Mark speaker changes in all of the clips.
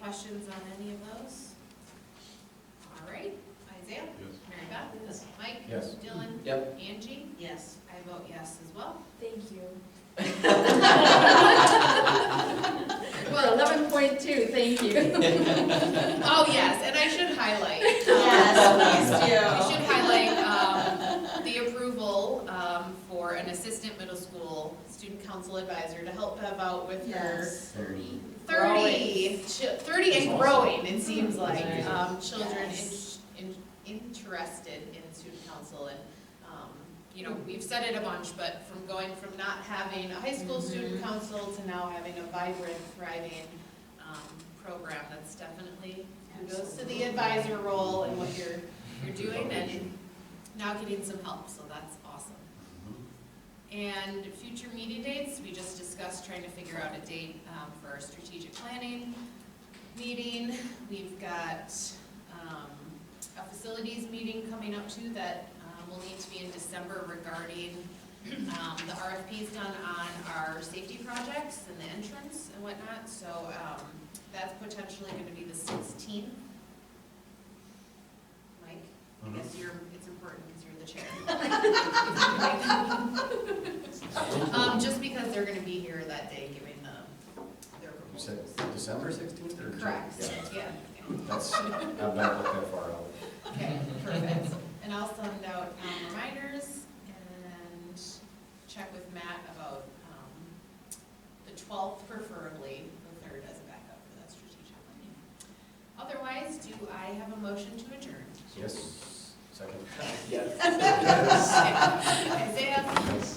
Speaker 1: questions on any of those? All right, Isaiah?
Speaker 2: Yes.
Speaker 1: Mary Beth?
Speaker 3: Yes.
Speaker 1: Mike?
Speaker 2: Yes.
Speaker 1: Dylan?
Speaker 4: Yep.
Speaker 1: Angie?
Speaker 3: Yes.
Speaker 1: I vote yes as well.
Speaker 5: Thank you. Well, eleven point two, thank you.
Speaker 1: Oh, yes, and I should highlight. um,
Speaker 3: Yes, please do.
Speaker 1: I should highlight um, the approval um, for an assistant middle school student council advisor to help Bev out with her
Speaker 3: Yes.
Speaker 1: thirty, chi- thirty and growing, it seems like,
Speaker 4: That's awesome.
Speaker 1: um, children
Speaker 3: Yes.
Speaker 1: in- in- interested in student council and, um, you know, we've said it a bunch, but from going from not having a high school student council to now having a vibrant, thriving, um, program, that's definitely goes to the advisor role and what you're, you're doing and now getting some help, so that's awesome. And future meeting dates, we just discussed trying to figure out a date um, for our strategic planning meeting. We've got um, a facilities meeting coming up too that um, will need to be in December regarding um, the RFPs done on our safety projects and the entrance and whatnot. So um, that's potentially going to be the 16th. Mike, I
Speaker 2: Mhm.
Speaker 1: guess you're, it's important because you're the chair. Um, just because they're gonna be here that day giving the, their
Speaker 4: You said
Speaker 1: proposals.
Speaker 4: December sixteenth or?
Speaker 1: Correct,
Speaker 4: Yeah,
Speaker 1: yeah,
Speaker 4: That's, I've not looked that far out.
Speaker 1: yeah. okay, perfect. And I'll send out um, reminders and check with Matt about, um, the twelfth preferably, the third as a backup for that strategic planning. Otherwise, do I have a motion to adjourn?
Speaker 4: Yes, second.
Speaker 1: Isaiah?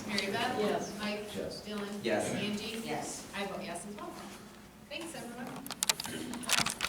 Speaker 1: Mary Beth?
Speaker 3: Yes.
Speaker 1: Mike?
Speaker 4: Yes.
Speaker 1: Dylan?
Speaker 4: Yes.
Speaker 1: Angie?
Speaker 3: Yes.
Speaker 1: I vote yes as well. Thanks, everyone.